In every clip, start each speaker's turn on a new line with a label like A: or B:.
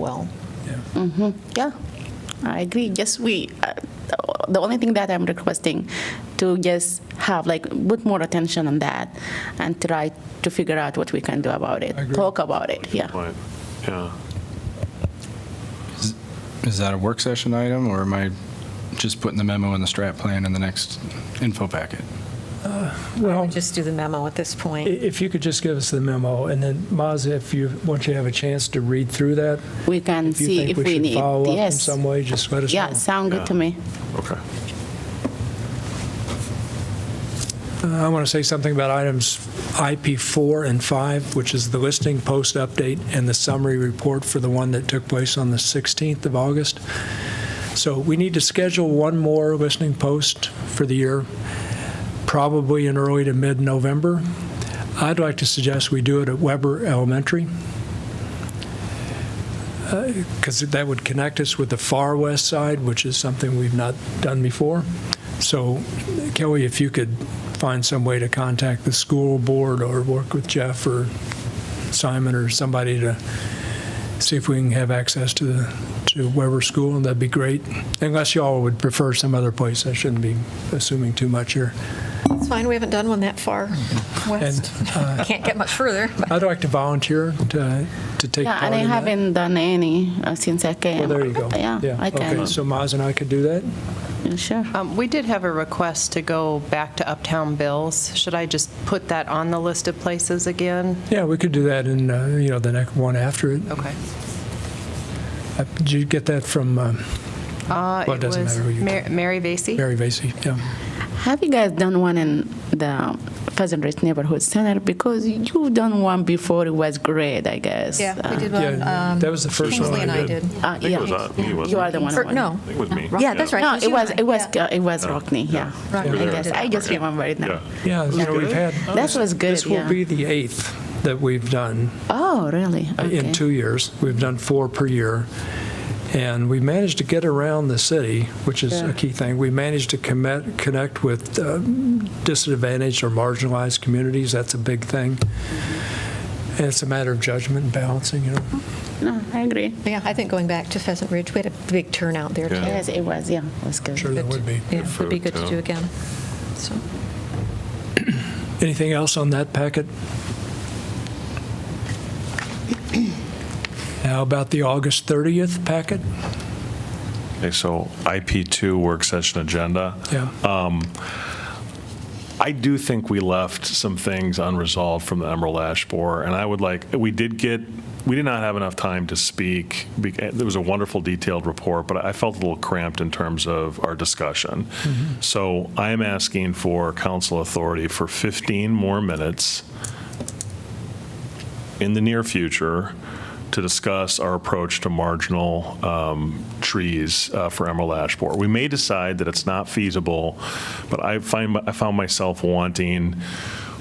A: well.
B: Yeah.
A: Yeah, I agree. Just we, uh, the only thing that I'm requesting to just have like put more attention on that and try to figure out what we can do about it.
B: I agree.
A: Talk about it. Yeah.
C: Right, yeah.
D: Is that a work session item, or am I just putting the memo and the strat plan in the next info packet?
B: Well,
E: Just do the memo at this
B: i-
E: point.
B: if you could just give us the memo, and then Maz, if you, once you have a chance to read through that,
A: We can
B: if you
A: see
B: think
A: if
B: we
A: we
B: should
A: need.
B: follow up in
A: Yes.
B: some way, just let us know.
A: Yeah, sound good to me.
C: Okay.
B: Uh, I want to say something about items IP4 and 5, which is the listing post update and the summary report for the one that took place on the 16th of August. So we need to schedule one more listening post for the year, probably in early to mid-November. I'd like to suggest we do it at Weber Elementary, because that would connect us with the far west side, which is something we've not done before. So Kelly, if you could find some way to contact the school board or work with Jeff or Simon or somebody to see if we can have access to the, to Weber School, and that'd be great. Unless y'all would prefer some other place, I shouldn't be assuming too much here.
E: It's fine, we haven't done one that far west.
B: uh,
E: Can't get much further. but-
B: I'd like to volunteer to, to take
A: Yeah,
B: part
A: and I
B: in that.
A: haven't done any uh, since I came.
B: Well, there you go.
A: Yeah, I
B: Okay,
A: can.
B: so Maz and I could do that?
A: Sure.
F: Um, We did have a request to go back to Uptown Bills. Should I just put that on the list of places again?
B: Yeah, we could do that in, uh, you know, the next one after it.
F: Okay.
B: Uh, Did you get that from um,
F: Uh,
B: Well, it doesn't
F: was
B: matter who you
F: Mar- Mary Vacy?
B: Mary Vacy? Yeah.
A: Have you guys done one in the Pheasant Ridge Neighborhood Center? Because you've done one before, it was great, I guess.
E: Yeah, we did one.
B: Yeah,
E: um,
B: that was the first one
E: Kingsley and
B: I
E: I
B: did.
E: did.
A: Uh,
C: I think
A: yeah.
C: it was, uh, me,
A: You
C: wasn't
A: are
C: it?
A: the one.
E: For-
A: who won.
E: No.
C: I think it was me.
E: Yeah, that's right.
A: No,
E: was
A: it
E: you
A: was,
E: and I,
A: it was,
E: yeah.
A: uh, it was Rockney, yeah. I
E: Right. You were there.
A: guess, I just remember it now.
C: Yeah.
B: Yeah, you know, we've had,
A: That was good,
B: this will
A: yeah.
B: be the eighth that we've done
A: Oh, really?
B: in
A: Okay.
B: two years. We've done four per year. And we managed to get around the city, which is a key thing. We managed to commit, connect with uh, disadvantaged or marginalized communities. That's a big thing. And it's a matter of judgment and balancing, you know.
A: No, I agree.
E: Yeah, I think going back to Pheasant Ridge, we had a big turnout there,
C: Yeah.
E: too.
A: Yes, it was, yeah, it was good.
B: Sure that would be.
E: Yeah, would be good to
C: Food,
E: do
C: yeah.
E: again. So,
B: Anything else on that packet? How about the August 30th packet?
G: Okay, so IP2 work session agenda.
B: Yeah.
G: I do think we left some things unresolved from the Emerald Ash Borer, and I would like, we did get, we did not have enough time to speak. Be- There was a wonderful detailed report, but I felt a little cramped in terms of our discussion. So I am asking for council authority for 15 more minutes in the near future to discuss our approach to marginal um, trees uh, for emerald ash borer. We may decide that it's not feasible, but I find, I found myself wanting,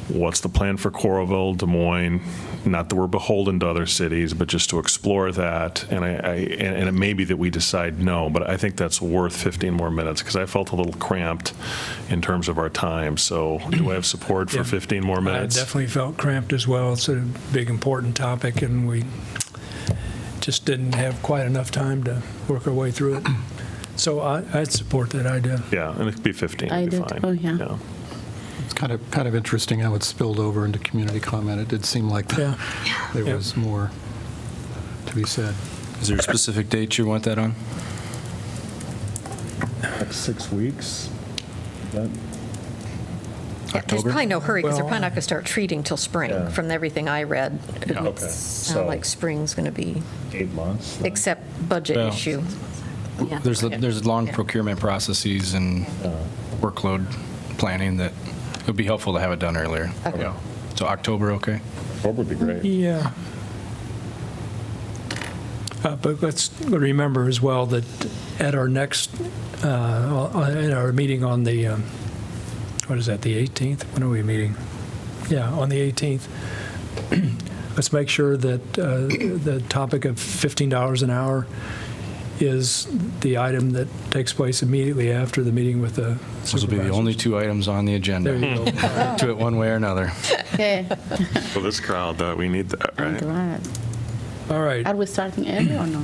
G: what's the plan for Coralville, Des Moines? Not that we're beholden to other cities, but just to explore that. And I, I- and and it may be that we decide no, but I think that's worth 15 more minutes because I felt a little cramped in terms of our time. So do I have support for 15 more
B: I
G: minutes?
B: definitely felt cramped as well. It's a big, important topic, and we just didn't have quite enough time to work our way through it. So I- I'd support that idea.
G: Yeah, and it could be 15.
A: I
G: it'd be
A: did.
G: fine.
A: Oh, yeah.
H: It's kind of, kind of interesting how it spilled over into community comment. It did seem like
B: Yeah.
H: there
B: Yeah.
H: was more to be said.
D: Is there a specific date you want that on?
I: Like six weeks? That-
E: yeah, there's probably no hurry, because they're
B: Well-
E: probably not going to start treating till spring,
I: Yeah.
E: from everything I read. It
I: Yeah. Okay. So-
E: sounds like spring's going to be,
I: Eight months?
E: except budget
D: Well,
E: issue. Yeah.
D: There's, a- there's long
E: Yeah.
D: procurement processes and workload planning that it would be helpful to have it done earlier.
E: Okay.
D: Yeah. So October, okay?
I: Four would be great.
B: Yeah. Uh, But let's remember as well that at our next, uh, at our meeting on the, um, what is that, the 18th? When are we meeting? Yeah, on the 18th. Let's make sure that uh, the topic of $15 an hour is the item that takes place immediately after the meeting with the
D: Those will be the
B: supervisor.
D: only two items on the
B: There
D: agenda.
B: you go.
D: Do it one way or another.
A: Okay,
C: For this crowd, though, we need that,
A: I'm
C: right?
A: glad.
B: All right.
A: Are we starting early or no?